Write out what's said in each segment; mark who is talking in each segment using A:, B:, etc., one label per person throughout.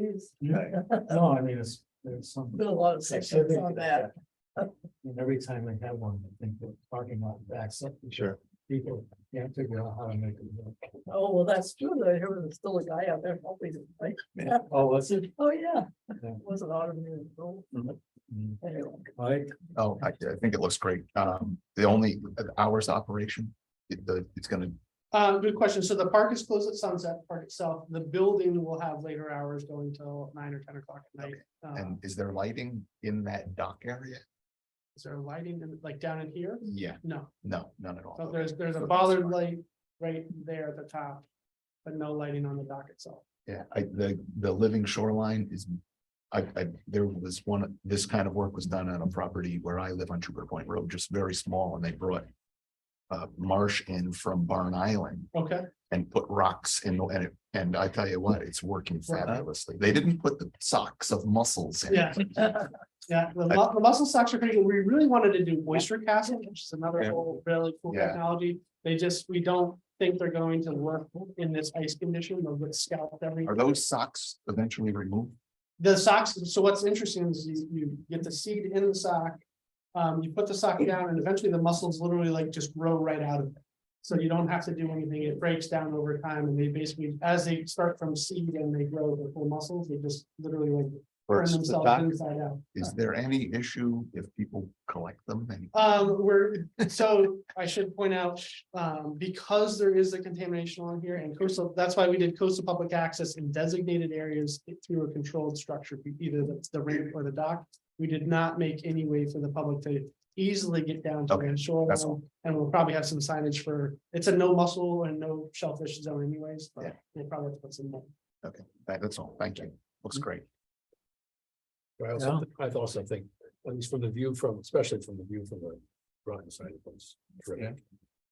A: There's
B: No, Oh, I mean, it's, there's some.
A: been a lot of sessions on that.
B: And every time I have one, I think the parking lot backs up.
C: Sure.
B: People can't figure out how to make it. work.
A: Oh, well, that's true. I heard there's still a guy out there helping. them, right?
B: Oh, was it?
A: Oh, yeah.
B: Yeah.
A: Wasn't automated. at all.
B: Mm,
A: Anyway,
B: Mike,
C: Oh, I, I think it looks great. Um, the only hours of operation, it- the, it's gonna,
D: Um, good question. So the park is closed at sunset, the park itself. The building will have later hours going till nine or ten o'clock at night. Uh,
C: and is there lighting in that dock area?
D: is there lighting in- like down in here?
C: Yeah,
D: No,
C: no, none at
D: so
C: all.
D: there's, there's a
C: Okay.
D: bollard light right there at the top, but no lighting on the dock itself.
C: Yeah, I, the, the living shoreline is, I, I, there was one, this kind of work was done on a property where I live on Trooper Point Road, just very small, and they brought uh, marsh in from Barn Island
D: Okay,
C: and put rocks in, the- and it, and I tell you what, it's working
D: Wow.
C: fabulously. They didn't put the socks of mussels in.
D: yeah. Yeah, the mu- the muscle socks are pretty good. We really wanted to do oyster casting, which is another
C: Yeah.
D: whole really cool
C: Yeah.
D: technology. They just, we don't think they're going to work in this ice condition. They'll get scalped every.
C: Are those socks eventually removed?
D: The socks, so what's interesting is you, you get the seed in the sock. Um, you put the sock down and eventually the muscles literally like just grow right out of it. So you don't have to do anything. It breaks down over time and they basically, as they start from seed and they grow the full muscles, they just literally like
C: Or
D: turn
C: is the
D: themselves
C: dock-
D: inside out.
C: is there any issue if people collect them? And-
D: Um, we're, so I should point out, um, because there is the contamination on here and coastal, that's why we did coastal public access in designated areas through a controlled structure, either the, the ramp or the dock. We did not make any way for the public to easily get down to
C: Okay,
D: the shoreline,
C: all.
D: and we'll probably have some signage for, it's a no mussel and no shellfish zone anyways, but
C: Yeah.
D: we'll probably have to put some.
C: That- That's all. Thank you. Looks great.
E: I also, thi- I also think, at least from the view from, especially from the view from the Groton side of things. terrific.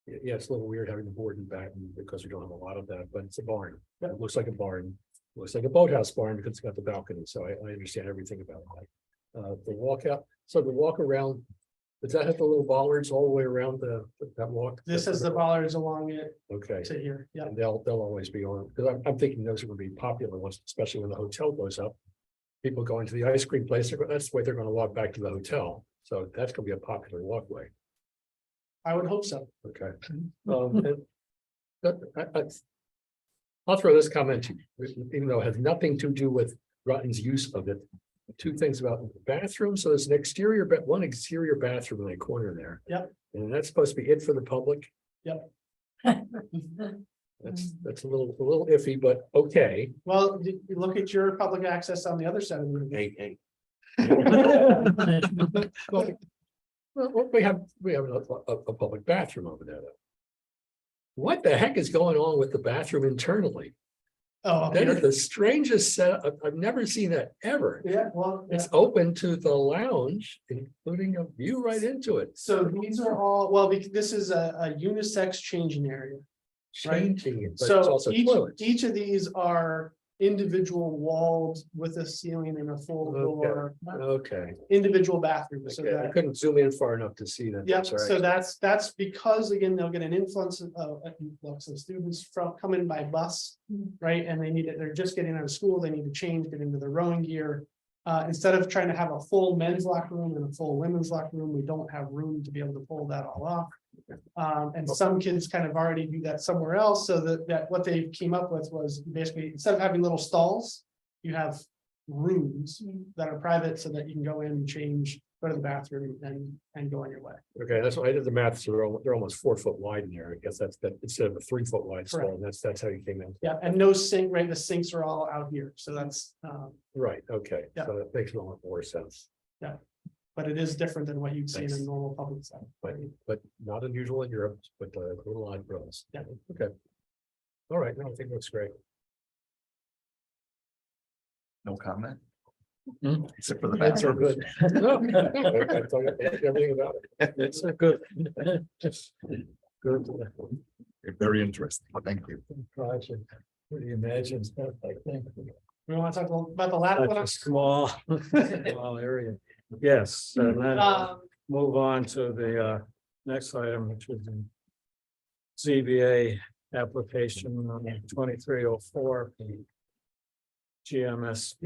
E: Y- Yeah, it's a little weird having the board and back because we don't have a lot of that, but it's a barn. It looks like a barn. Looks like a boathouse barn because it's got the balcony, so I, I understand everything about that. Uh, the walkout, so the walk around, does that have the little bollards all the way around the, that walk?
D: This is the bollards along it
E: Okay.
D: to here, yeah.
E: And they'll, they'll always be on, because I'm, I'm thinking those are gonna be popular ones, especially when the hotel goes up. People going to the ice cream place, they're go- that's the way they're gonna walk back to the hotel, so that's gonna be a popular walkway,
D: I would hope so.
E: okay?
D: Mhm.
E: Um, and. But I, I. I'll throw this comment, to you, even though it has nothing to do with Rutten's use of it. Two things about bathrooms, so there's an exterior, but one exterior bathroom in the corner there.
D: Yep.
E: And that's supposed to be it for the public. That's, that's a little, a little iffy, but okay.
D: Well, you you look at your public access on the other side of the room.
E: Well, Well, well, we have, we have a, a, a public bathroom over there. though. What the heck is going on with the bathroom internally?
D: Oh,
E: That is
D: okay.
E: the strangest setup. I've, I've never seen that ever.
D: yeah, well, yeah.
E: It's open to the lounge, including a view right into it.
D: so these are all, well, bec- this is a, a unisex changing area. Right.
E: Changing it, but it's
D: So
E: also
D: each,
E: toilets.
D: each of these are individual walled with a ceiling and a full
E: Okay.
D: door,
E: Okay,
D: individual bathrooms. So
E: okay. I
D: that,
E: couldn't zoom in far enough to see that.
D: yeah,
E: That's all right.
D: so that's, that's because again, they'll get an influence of, uh, an influx of students from, coming by bus. Right, and they need it, they're just getting out of school, they need to change, get into their rowing gear. Uh, instead of trying to have a full men's locker room and a full women's locker room, we don't have room to be able to pull that all off. Um, and some kids kind of already do that somewhere else, so that, that what they came up with was basically, instead of having little stalls. You have rooms that are private so that you can go in and change, go to the bathroom and, and go on your way.
E: Okay, that's why I did the math, so they're, al- they're almost four foot wide in there, I guess that's, that, instead of a three foot wide stall,
D: Correct.
E: that's, that's how you came in.
D: Yeah, and no sink, right, the sinks are all out here, so that's, um,
E: Right, okay,
D: Yeah.
E: so that makes a lot more sense,
D: but it is different than what you'd see in a
E: Thanks.
D: normal public setting.
E: but, but not unusual in Europe, but uh little odd for us.
D: Yeah.
E: Okay. All right, no, I think that's great.
C: No comment?
B: Hmm.
C: Except for the
E: That's all
C: bathroom.
E: good. No, no, I- I tell you Everything about it. It's a good. Good.
C: Very interesting. Thank you.
B: uh, project, pretty imagine stuff like that.
D: We want to talk about about the last
B: Such
D: one.
B: a small, small area. Yes, and then
D: Um,
B: move on to the uh next item, which is the ZBA application on twenty-three oh four.
E: GMS